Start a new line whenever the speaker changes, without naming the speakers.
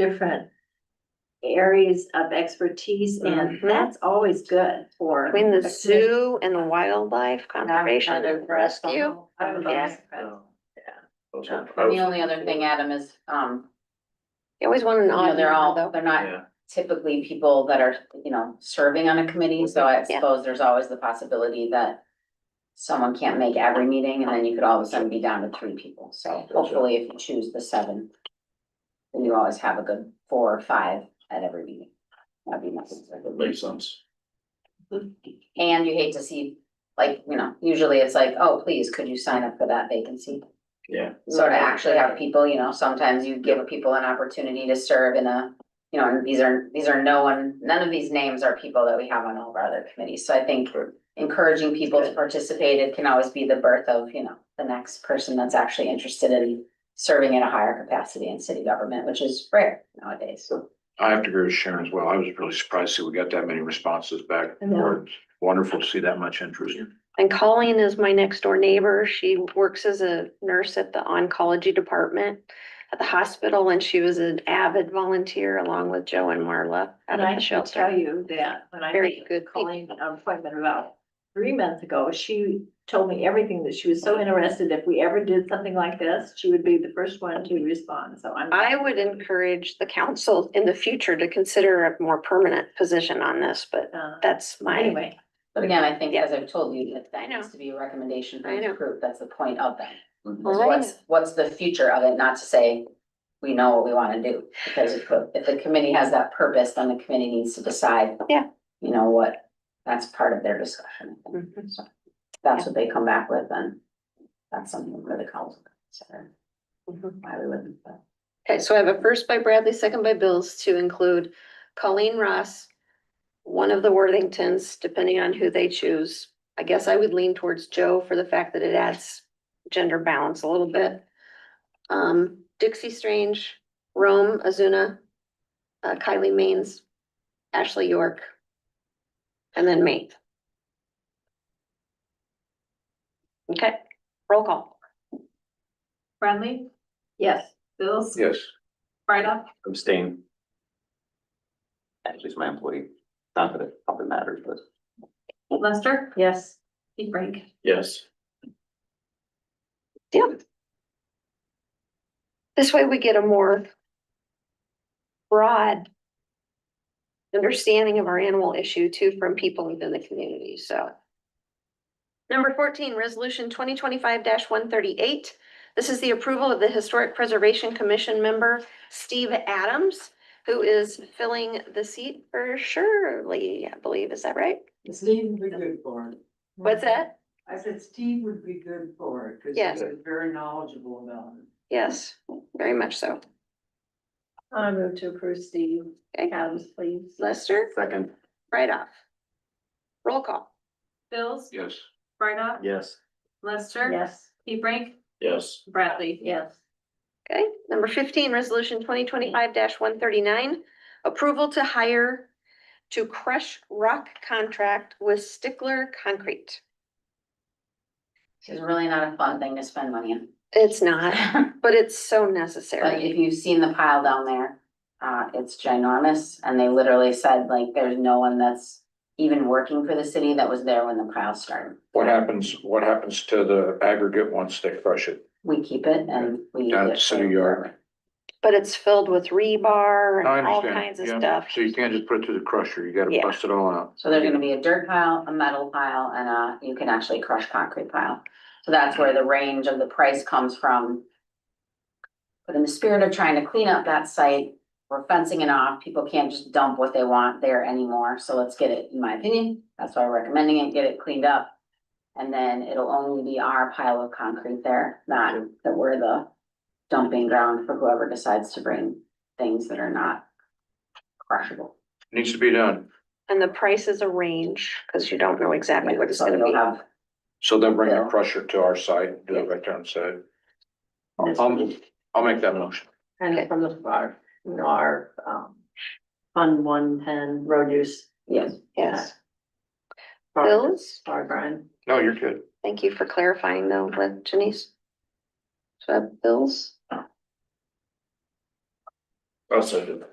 different areas of expertise and
Mhm.
that's always good for.
Between the
a commission-
zoo and the wildlife
And I'm kind
conservation
of impressed on
rescue. Oh,
the- I was
Yeah.
impressed.
Oh.
Yeah.
And The only other thing, Adam, is, um,
You always want an
you know,
odd
they're all,
number though.
they're not typically people that are, you know, serving on a committee, so I
Yeah.
suppose there's always the possibility that someone can't make every meeting, and then you could all of a sudden be down to three people, so
Gotcha.
hopefully if you choose the seven, then you always have a good four or five at every meeting. That'd be nice.
That makes sense.
And you hate to see, like, you know, usually it's like, oh, please, could you sign up for that vacancy?
Yeah.
So to actually have people, you know, sometimes you give people an opportunity to serve in a, you know, and these are, these are no one, none of these names are people that we have on all of our other committees, so I think.
Correct.
Encouraging people to
Good.
participate, it can always be the birth of, you know, the next person that's actually interested in serving in a higher capacity in city government, which is rare nowadays.
I have to agree with Sharon as well. I was really surprised that we got that many responses back.
I know.
It's Wonderful to see that much interest.
And Colleen is my next door neighbor. She works as a nurse at the oncology department at the hospital and she was an avid volunteer along with Joe and Marla out
And
of
I
the
should tell
shelter.
you that when I
Very
made
good people.
Colleen an appointment about three months ago, she told me everything that she was so interested. If we ever did something like this, she would be the first one to respond, so I'm.
I would encourage the council in the future to consider a more permanent position on this, but
Uh,
that's my,
Anyway,
But again, I think,
Yeah.
as I've told you, that
I
that
know.
needs to be a recommendation
I
from the
know.
group, that's the point of that.
Mhm.
Well,
is
I
what's, what's the future of it, not to say we know what we wanna do. Because if, the- if the committee has that purpose, then the committee needs to decide.
Yeah.
You know what, that's part of their discussion. I think.
Mhm.
So That's what they come back with, then that's something for the council to consider.
Mhm.
Why we wouldn't, but.
okay, so I have a first by Bradley, second by Bills to include Colleen Ross, one of the Worthingtons, depending on who they choose. I guess I would lean towards Joe for the fact that it adds gender balance a little bit. Um, Dixie Strange, Rome Azuna, uh, Kylie Maines, Ashley York, and then me. Okay, roll call.
Bradley,
yes,
Bills,
Yes.
Brightoff,
Abstain. Ashley's my employee. Not that it probably matters, but.
Lester,
yes.
Deep Break.
Yes.
This way we get a more broad understanding of our animal issue too from people within the community, so. Number fourteen, resolution twenty twenty-five one thirty-eight. This is the approval of the Historic Preservation Commission member Steve Adams, who is filling the seat for Shirley, I believe, is that right?
Steve would be good for it.
What's that?
I said Steve would be good for it, cause
Yes.
he's very knowledgeable about it.
Yes, very much so.
I move to approve Steve
Okay, um,
Adams, please.
Lester,
Second.
right off. Roll call.
Bills,
Yes.
Brightoff,
Yes.
Lester,
Yes,
Deep Break,
Yes.
Bradley.
yes.
Okay, number fifteen, resolution twenty twenty-five one thirty-nine, approval to hire to crush rock contract with Stickler Concrete.
It's really not a fun thing to spend money on.
It's not, but it's so
But
necessary.
if you've seen the pile down there, uh, it's ginormous, and they literally said, like, there's no one that's even working for the city that was there when the pile started.
What happens, what happens to the aggregate once they crush it?
We keep it and we.
Down at the city yard.
But it's filled with rebar
I
and all
understand.
kinds of
Yeah.
stuff.
So you can't just put it through the crusher. You gotta
Yeah.
bust it all out.
So there's gonna be a dirt pile, a metal pile, and a, you can actually crush concrete pile. So that's where the range of the price comes from. But in the spirit of trying to clean up that site, we're fencing it off. People can't just dump what they want there anymore. So let's get it, in my opinion, that's why I'm recommending it, get it cleaned up. And then it'll only be our pile of concrete there, not that we're the dumping ground for whoever decides to bring things that are not crushable.
Needs to be done.
And the price is a range, because you don't know exactly what it's
So
gonna
you'll
be.
have
So they'll bring the
Yeah.
crusher to our site, do it right there on site.
That's-
I'll, I'll make that motion.
Okay.
And from the far, you know, our, um, Fund One Ten Road Use.
Yes.
Yes,
Far-
Bills?
Far Brian.
No, you're good.
thank you for clarifying though, with Janice. So, Bills?
I'll second.